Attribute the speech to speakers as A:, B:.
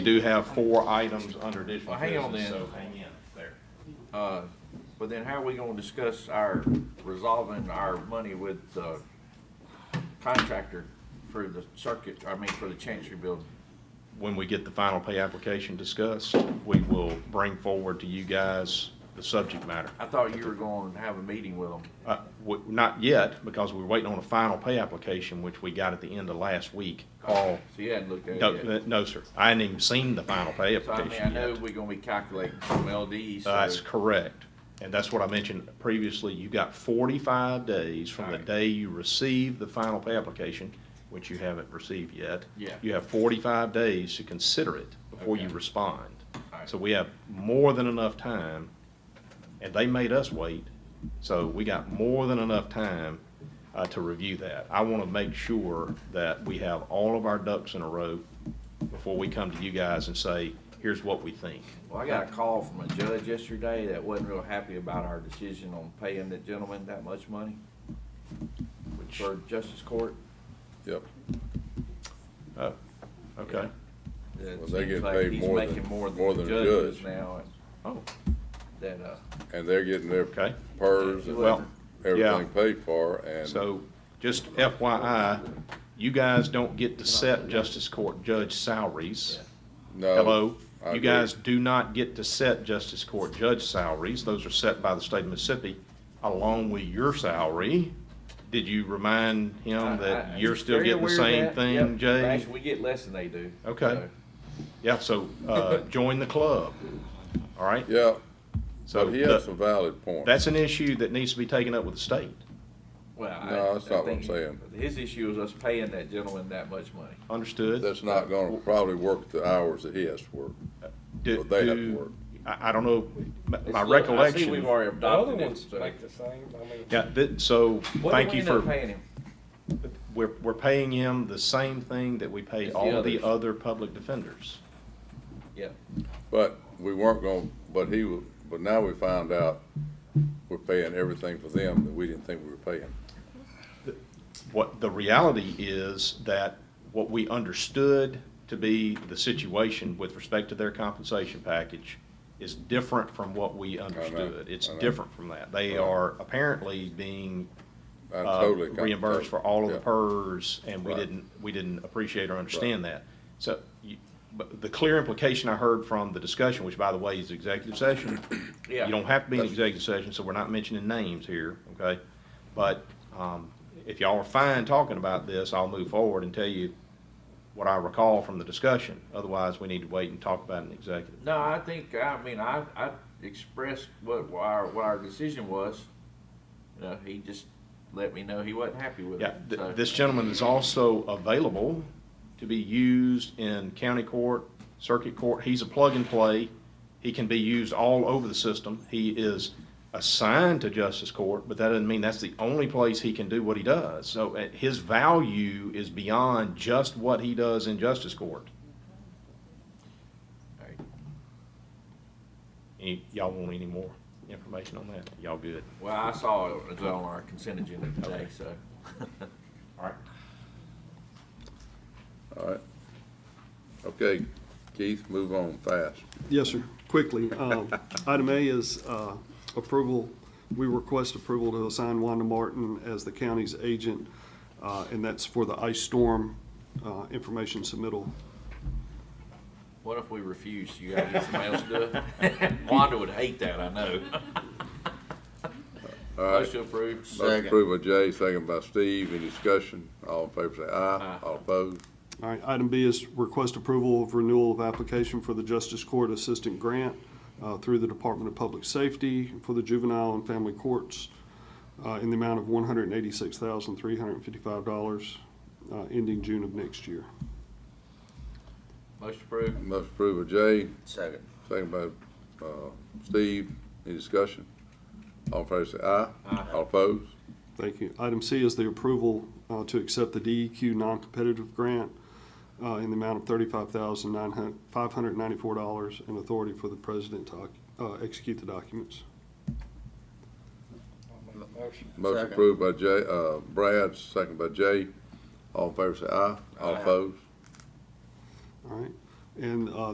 A: do have four items under additional
B: Well, hang on
A: business,
B: then.
A: so hang in there.
B: Uh, but then how are we gonna discuss our resolving our money with the contractor for the circuit, I mean, for the chancery building?
A: When we get the final pay application discussed, we will bring forward to you guys the subject matter.
B: I thought you were going to have a meeting with them.
A: Uh, w- Not yet, because we're waiting on a final pay application, which we got at the end of last week. Carl,
B: So you hadn't looked at
A: no,
B: it yet.
A: uh, no, sir, I hadn't even seen the final pay
B: So I mean, I
A: application
B: know
A: yet.
B: we're gonna be calculating some LDs,
A: Uh, That's
B: so
A: correct, and that's what I mentioned previously, you've got forty-five days from the
B: Alright.
A: day you receive the final pay application, which you haven't received yet.
B: Yeah.
A: You have forty-five days to consider it before you
B: Okay.
A: respond.
B: Alright.
A: So we have more than enough time, and they made us wait, so we got more than enough time uh, to review that. I want to make sure that we have all of our ducks in a row before we come to you guys and say, here's what we think.
B: Well, I got a call from a judge yesterday that wasn't real happy about our decision on paying the gentleman that much money
A: Which,
B: for justice court.
C: Yep,
A: oh, okay.
B: It
C: Well, they
B: seems
C: get
B: like
C: paid
B: he's
C: more than-
B: making
C: more than a
B: judge is
C: judge.
B: Now,
A: Oh,
B: that, uh,
C: and they're getting their
A: Okay.
C: PERS
A: well,
C: and
A: yeah.
C: everything paid for, and,
A: so just FYI, you guys don't get to set justice court judge salaries.
C: no.
A: Hello?
C: Oh, I
A: You
C: agree.
A: guys do not get to set justice court judge salaries. Those are set by the state of Mississippi along with your salary. Did you remind
B: I-
A: him
B: I-
A: that you're still
B: very
A: getting the
B: aware
A: same
B: of that. Yep.
A: thing, Jay?
B: Actually, we get less than they do.
A: Okay.
B: So,
A: Yeah, so, uh, join the club, all right?
C: Yeah,
A: So
C: but he has
A: the-
C: some valid points.
A: that's an issue that needs to be taken up with the state.
B: Well, I.
C: No, that's
B: I
C: not what I'm
B: think
C: saying.
B: His issue is us paying that gentleman that much money.
A: Understood?
C: That's not gonna probably work the hours that he has to work.
A: Do,
C: Well, they have to
A: do-
C: work.
A: I, I don't know, my- my
B: It's- look, I see we've
A: recollection,
B: already
D: The other
B: adopted it.
D: ones
B: so-
D: like the same, I mean.
A: yeah, thi- so,
B: What
A: thank
B: did we
A: you
B: end up
A: for,
B: Paying him.
A: we're, we're paying him the same thing that we pay
B: As the
A: all the
B: others.
A: other public defenders.
B: Yeah.
C: But we weren't gonna, but he, wa- but now we found out we're paying everything for them that we didn't think we were paying.
A: What the reality is that what we understood to be the situation with respect to their compensation package is different from what we understood. It's
C: I know.
A: different from that. They are apparently being
C: I
A: uh,
C: totally. got-
A: reimbursed for all of the
C: Yeah.
A: PERS, and we
C: Right.
A: didn't, we didn't appreciate or understand that. So, you- but the clear implication I heard from the discussion, which by the way is executive session,
B: Yeah.
A: you don't have to be in
C: That's-
A: executive session, so we're not mentioning names here, okay? But, um, if y'all are fine talking about this, I'll move forward and tell you what I recall from the discussion. Otherwise, we need to wait and talk about it in executive.
B: No, I think, I mean, I, I expressed what our, what our decision was. You know, he just let me know he wasn't happy with
A: Yeah,
B: it.
A: th-
B: so-
A: this gentleman is also available to be used in county court, circuit court. He's a plug and play. He can be used all over the system. He is assigned to justice court, but that doesn't mean that's the only place he can do what he does. So uh, his value is beyond just what he does in justice court.
B: Right.
A: Any, y'all want any more information on that? Y'all good?
B: Well, I saw it was on our consent agenda today, so.
A: All right.
C: All right. Okay, Keith, move on fast.
E: Yes, sir. Quickly, um, item A is uh, approval, we request approval to assign Wanda Martin as the county's agent, uh, and that's for the ice storm uh, information submittal.
B: What if we refuse? You gotta get somebody else to do it? Wanda would hate that, I know.
C: All right.
B: Motion approved.
C: Motion approved by Jay, second by Steve. Any discussion? All in favor say aye.
B: Aye.
C: All opposed?
E: All right, item B is request approval of renewal of application for the Justice Court Assistant Grant uh, through the Department of Public Safety for the juvenile and family courts uh, in the amount of $186,355, uh, ending June of next year.
B: Motion approved.
C: Motion approved by Jay,
B: Second.
C: second by, uh, Steve. Any discussion? All in favor say aye. All opposed?
E: Thank you. Item C is the approval uh, to accept the DEQ non-competitive grant uh, in the amount of thirty-five thousand nine hundred five hundred ninety-four dollars and authority for the president to oc- uh, execute the documents.
D: I'll make a motion.
C: Motion approved by Jay, uh, Brad, second by Jay. All in favor say aye. All
B: Aye.
C: opposed?
E: All right? And uh,